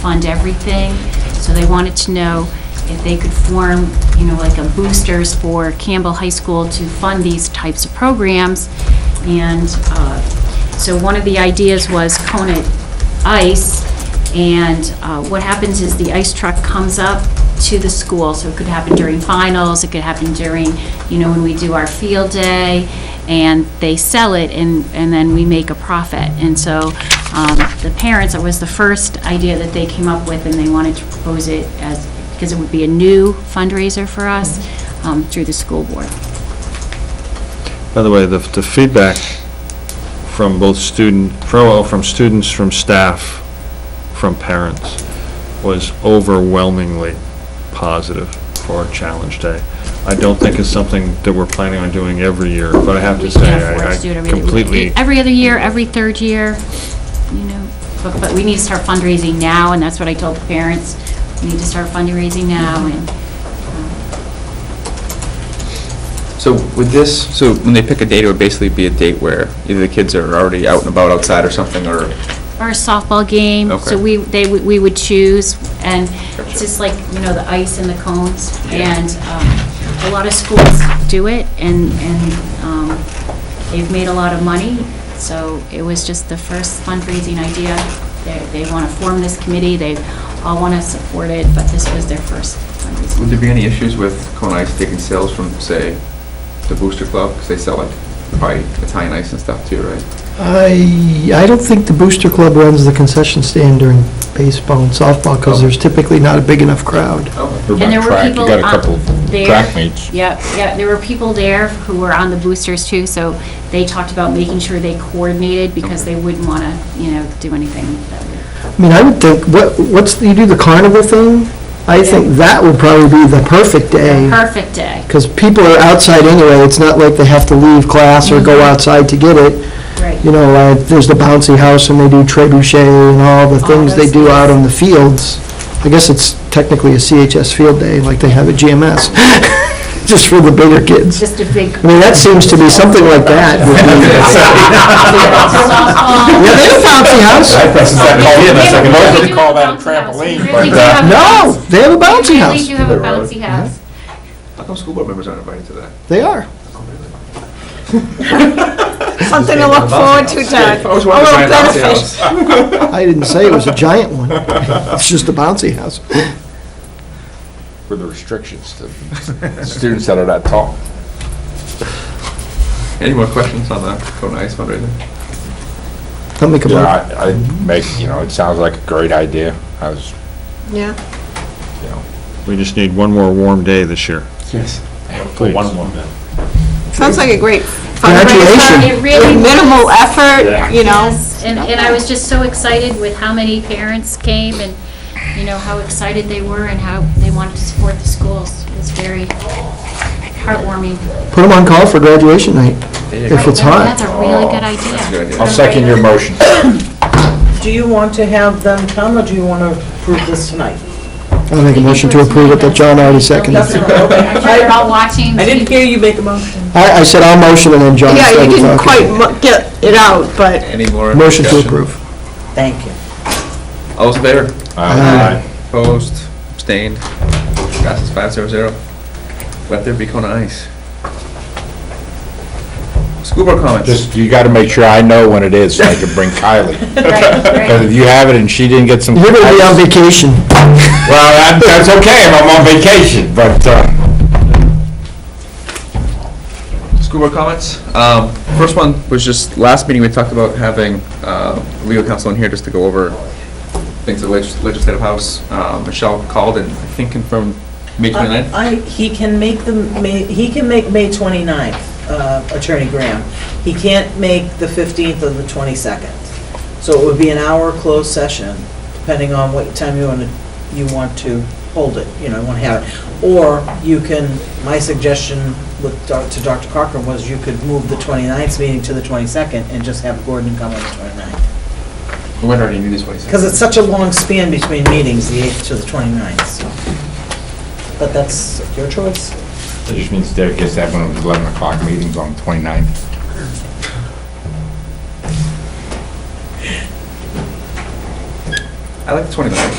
fund everything, so they wanted to know if they could form, you know, like a boosters for Campbell High School to fund these types of programs. And uh, so one of the ideas was Kona Ice, and uh, what happens is the ice truck comes up to the school, so it could happen during finals, it could happen during, you know, when we do our field day, and they sell it, and, and then we make a profit. And so um, the parents, it was the first idea that they came up with, and they wanted to propose it as, because it would be a new fundraiser for us um, through the school board. By the way, the, the feedback from both student, from, from students, from staff, from parents, was overwhelmingly positive for our challenge day. I don't think it's something that we're planning on doing every year, but I have We to say, can't afford I- to do it I every year. completely, Every other year, every third year, you know, but, but we need to start fundraising now, and that's what I told the parents. We need to start fundraising now, and um, So with this, so when they pick a date, it would basically be a date where either the kids are already out and about outside or something, or, or a softball game. Okay. So we, they, would- we would choose, and it's Gotcha. just like, you know, the ice and the cones. Yeah. And um, a lot of schools do it, and, and um, they've made a lot of money. So it was just the first fundraising idea. They, they want to form this committee, they all want to support it, but this was their first fundraising. would there be any issues with Kona Ice taking sales from, say, the Booster Club, because they sell like probably Italian ice and stuff too, right? I, I don't think the Booster Club runs the concession stand during baseball and softball, because there's typically not a big enough crowd. Oh, What about And there were track? people You got a on- couple of there. track meets. Yep, yep, there were people there who were on the boosters too, so they talked about making sure they coordinated because they wouldn't want to, you know, do anything that would I mean, I would think, what, what's, the- you do the carnival thing? I think that would probably be the perfect day, Perfect day, because people are outside anyway, it's not like they have to leave class or go outside to get it. right. You know, uh, there's the bouncy house, and they do trebuchet and all the All things they those do out things. on the fields. I guess it's technically a CHS field day, like they have at GMS, just for the bigger kids. Just a big. I mean, that seems to be something like that. would be- Yeah, they have a bouncy house. Mostly call that a trampoline, but, uh, No, they have a bouncy Really do house. have a bouncy house. How come school board members aren't invited to that? They are. Something to look forward to, Todd. I always wanted to Oh, buy an ice benefit. house. I didn't say it was a giant one. It's just a bouncy house. With the restrictions to students that are not tall. Any more questions on the Kona Ice fundraiser? I'll make a Yeah, motion. I, I make, you know, it sounds like a great idea. I was, Yeah, you know. we just need one more warm day this year. Yes. Please. One more. sounds like a great Congratulations. fundraiser. It really Minimal Yeah. effort, you know. Yes, and, and I was just so excited with how many parents came and, you know, how excited they were and how they wanted to support the schools. It was very heartwarming. Put them on call for graduation night, if That's it's hot. a really good idea. That's a good idea. I'll second your motion. Do you want to have them come, or do you want to approve this tonight? I'll make a motion to approve it that John already seconded. That's okay. They're all watching. I didn't hear you make a motion. I, I said I'll motion and then John Yeah, you seconded. didn't Okay. quite mu- get it out, but Any more? Motion to discussion? approve. Thank you. All those in favor? Aye. Opposed, abstained, passes five zero zero. Let there be Kona Ice. School board comments. Just, you gotta make sure I know when it is, so I can bring Kylie. Because if you have it and she didn't get some. You're gonna be on vacation. Well, that- that's okay, if I'm on vacation, but, uh, School board comments. Um, First one was just, last meeting, we talked about having uh, legal counsel in here just to go over things at legis- legislative house. Uh, Michelle called and I think confirmed May 29th. I, he can make the, May- he can make May 29th, uh, Attorney Graham. He can't make the 15th or the 22nd. So it would be an hour closed session, depending on what time you want to, you want to hold it, you know, want to have it. Or you can, my suggestion with, Doc- to Dr. Cochran was you could move the 29th meeting to the 22nd and just have Gordon come on the 29th. We went already knew this 22nd. Because it's such a long span between meetings, the 8th to the 29th, so. But that's your choice. it just means Derek gets that one of his eleven o'clock meetings on the twenty-ninth. I like the 29th.